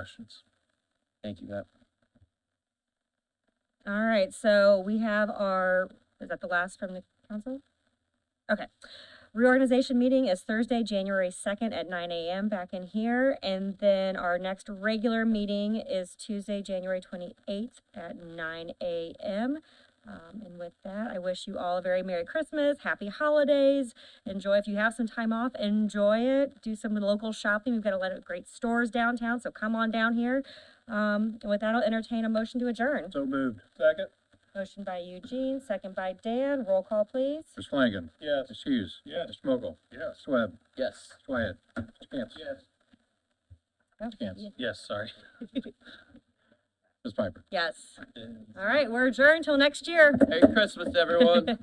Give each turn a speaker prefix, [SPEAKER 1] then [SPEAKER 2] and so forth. [SPEAKER 1] questions. Thank you, Pat.
[SPEAKER 2] All right, so we have our, is that the last from the council? Okay. Reorganization meeting is Thursday, January second at nine AM back in here. And then our next regular meeting is Tuesday, January twenty-eighth at nine AM. Um, and with that, I wish you all a very Merry Christmas, Happy Holidays. Enjoy, if you have some time off, enjoy it. Do some local shopping. We've got a lot of great stores downtown, so come on down here. Um, and with that, I'll entertain a motion to adjourn.
[SPEAKER 1] So moved.
[SPEAKER 3] Second?
[SPEAKER 2] Motion by Eugene, second by Dan. Roll call, please.
[SPEAKER 1] Mr. Flanagan.
[SPEAKER 3] Yes.
[SPEAKER 1] Mr. Hughes.
[SPEAKER 3] Yes.
[SPEAKER 1] Mr. Mokel.
[SPEAKER 3] Yes.
[SPEAKER 1] Mr. Webb.
[SPEAKER 4] Yes.
[SPEAKER 1] Mr. Wyatt. Mr. Cantz.
[SPEAKER 3] Yes.
[SPEAKER 1] Mr. Cantz.
[SPEAKER 2] Yeah.
[SPEAKER 1] Yes, sorry. Ms. Piper.
[SPEAKER 2] Yes. All right, we're adjourned till next year.
[SPEAKER 4] Merry Christmas, everyone.